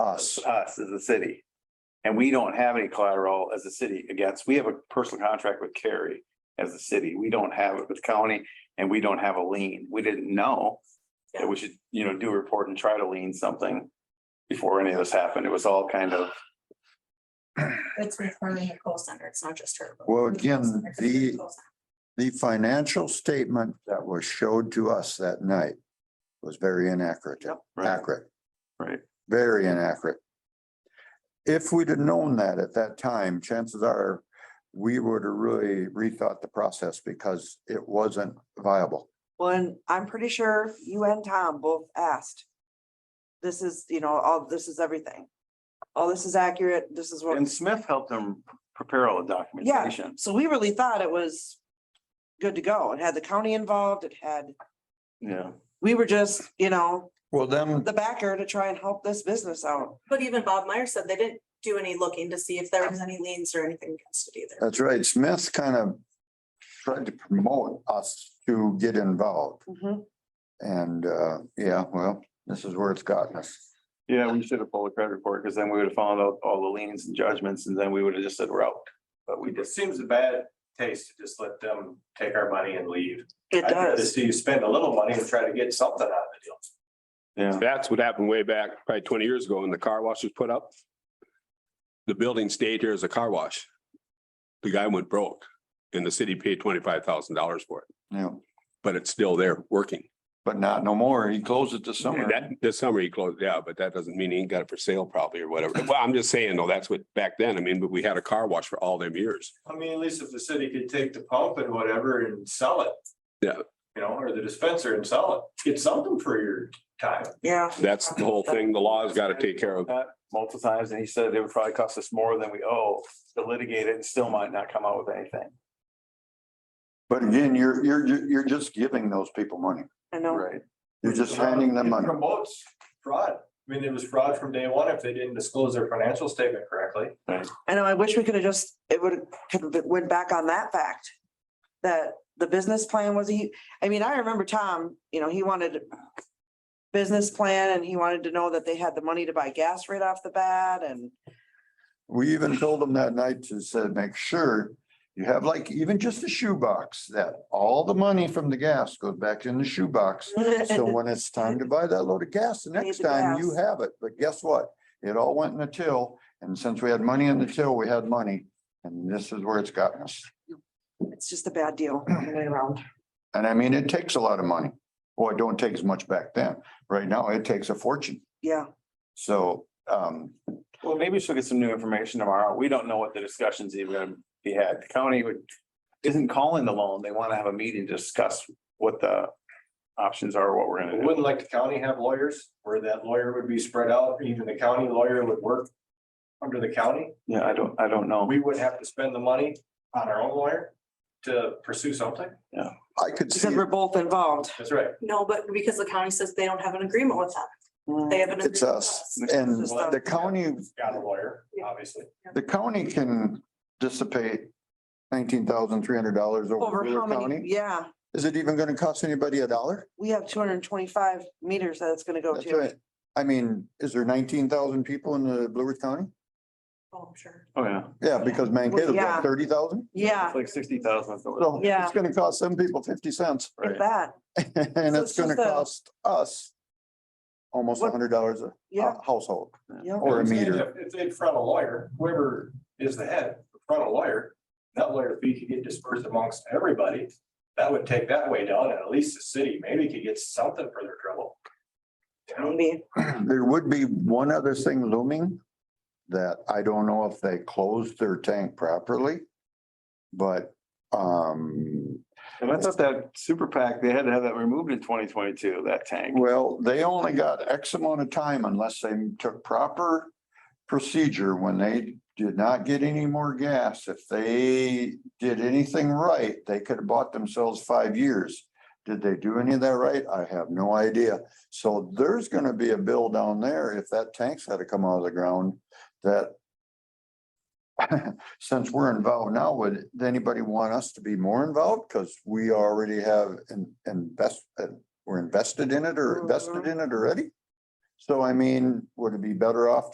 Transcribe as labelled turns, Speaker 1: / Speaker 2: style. Speaker 1: us.
Speaker 2: us as a city. And we don't have any collateral as a city against, we have a personal contract with Cary as a city. We don't have it with county and we don't have a lien. We didn't know. That we should, you know, do a report and try to lien something before any of this happened. It was all kind of,
Speaker 3: It's referring to call center. It's not just her. but-
Speaker 1: Well, again,
Speaker 3: It's
Speaker 1: the-
Speaker 3: call center.
Speaker 1: The financial statement that was showed to us that night was very inaccurate,
Speaker 2: right,
Speaker 1: accurate,
Speaker 2: right,
Speaker 1: very inaccurate. If we'd have known that at that time, chances are we would have really rethought the process because it wasn't viable.
Speaker 4: Well, and I'm pretty sure you and Tom both asked. This is, you know, all, this is everything. All this is accurate, this is what,
Speaker 2: And Smith helped them prepare all the
Speaker 4: yeah,
Speaker 2: documentation.
Speaker 4: so we really thought it was good to go. It had the county involved, it had,
Speaker 2: Yeah.
Speaker 4: we were just, you know,
Speaker 1: Well, then,
Speaker 4: the backer to try and help this business out.
Speaker 3: But even Bob Meyer said they didn't do any looking to see if there was any liens or anything against it either.
Speaker 1: that's right, Smith kind of tried to promote us to get involved. And, uh, yeah, well, this is where it's gotten us.
Speaker 2: Yeah, we should have pulled a credit report because then we would have found out all the liens and judgments and then we would have just said we're out. But we
Speaker 5: It
Speaker 2: just,
Speaker 5: seems a bad taste to just let them take our money and leave.
Speaker 4: It
Speaker 5: I'd rather
Speaker 4: does.
Speaker 5: see you spend a little money and try to get something out of the deal.
Speaker 2: yeah,
Speaker 6: That's what happened way back, probably twenty years ago, when the car wash was put up. The building stayed here as a car wash. The guy went broke and the city paid twenty-five thousand dollars for it,
Speaker 1: Yeah,
Speaker 6: but it's still there working.
Speaker 1: but not no more. He closed it this summer.
Speaker 6: And That, this summer he closed, yeah, but that doesn't mean he ain't got it for sale probably or whatever. Well, I'm just saying, though, that's what, back then, I mean, but we had a car wash for all them years.
Speaker 5: I mean, at least if the city could take the pump and whatever and sell it.
Speaker 6: Yeah.
Speaker 5: You know, or the dispenser and sell it, get something for your time.
Speaker 4: Yeah,
Speaker 6: That's the whole thing the law's got to take care of.
Speaker 2: that multiple times and he said it would probably cost us more than we owe to litigate it and still might not come out with anything.
Speaker 1: But again, you're, you're, ju- you're just giving those people money.
Speaker 4: I know.
Speaker 2: Right.
Speaker 1: You're just handing them money.
Speaker 5: It Promotes fraud. I mean, it was fraud from day one if they didn't disclose their financial statement correctly.
Speaker 4: I know. I wish we could have just, it would have went back on that fact. That the business plan was he, I mean, I remember Tom, you know, he wanted. Business plan and he wanted to know that they had the money to buy gas right off the bat and
Speaker 1: We even told them that night to said, make sure you have like even just a shoebox that all the money from the gas goes back in the shoebox. So when it's time to buy that load of gas, the next
Speaker 4: the
Speaker 1: time you
Speaker 4: gas.
Speaker 1: have it. But guess what? It all went in the till. And since we had money in the till, we had money. And this is where it's gotten us.
Speaker 4: it's just a bad deal all the way around.
Speaker 1: And I mean, it takes a lot of money. Well, it don't take as much back then. Right now, it takes a fortune.
Speaker 4: Yeah,
Speaker 1: So, um,
Speaker 2: Well, maybe she'll get some new information tomorrow. We don't know what the discussions even gonna be had. The county would, isn't calling the loan. They want to have a meeting to discuss what the options are, what we're gonna do.
Speaker 5: Wouldn't like the county have lawyers where that lawyer would be spread out, even the county lawyer would work under the county.
Speaker 2: Yeah, I don't, I don't know.
Speaker 5: we would have to spend the money on our own lawyer to pursue something.
Speaker 1: I could see.
Speaker 4: because we're both involved.
Speaker 5: That's right.
Speaker 3: No, but because the county says they don't have an agreement with them.
Speaker 1: Mm.
Speaker 3: They have an. agreement
Speaker 1: It's
Speaker 3: with
Speaker 1: us and the county,
Speaker 5: Got a lawyer, obviously.
Speaker 1: the county can dissipate nineteen thousand three hundred dollars over
Speaker 4: Over how
Speaker 1: Wheeler
Speaker 4: many,
Speaker 1: County.
Speaker 4: yeah,
Speaker 1: Is it even gonna cost anybody a dollar?
Speaker 4: we have two hundred and twenty-five meters that it's gonna go
Speaker 1: That's
Speaker 4: to.
Speaker 1: right. I mean, is there nineteen thousand people in the Blue Earth County?
Speaker 3: Oh, I'm sure.
Speaker 2: Oh, yeah.
Speaker 1: Yeah, because Mankato's
Speaker 4: Yeah.
Speaker 1: got thirty thousand.
Speaker 4: Yeah,
Speaker 2: It's Like sixty thousand.
Speaker 1: So
Speaker 4: Yeah.
Speaker 1: it's gonna cost some people fifty cents
Speaker 4: if that,
Speaker 1: and
Speaker 4: So
Speaker 1: it's
Speaker 4: it's just
Speaker 1: gonna
Speaker 4: a-
Speaker 1: cost us almost a
Speaker 4: What-
Speaker 1: hundred dollars a
Speaker 4: yeah,
Speaker 1: a household
Speaker 4: yeah.
Speaker 1: or a meter.
Speaker 5: If- If they'd front a lawyer, whoever is the head, front a lawyer, that lawyer fee could get dispersed amongst everybody. That would take that way down and at least the city maybe could get something for their trouble. You know?
Speaker 4: Maybe,
Speaker 1: There would be one other thing looming that I don't know if they closed their tank properly. But, um,
Speaker 2: And I thought that super PAC, they had to have that removed in twenty twenty-two, that tank.
Speaker 1: well, they only got X amount of time unless they took proper procedure when they did not get any more gas. If they did anything right, they could have bought themselves five years. Did they do any of that right? I have no idea. So there's gonna be a bill down there if that tank's had to come out of the ground that since we're involved now, would anybody want us to be more involved? Because we already have in- invest, uh, we're invested in it or invested in it already. So I mean, would it be better off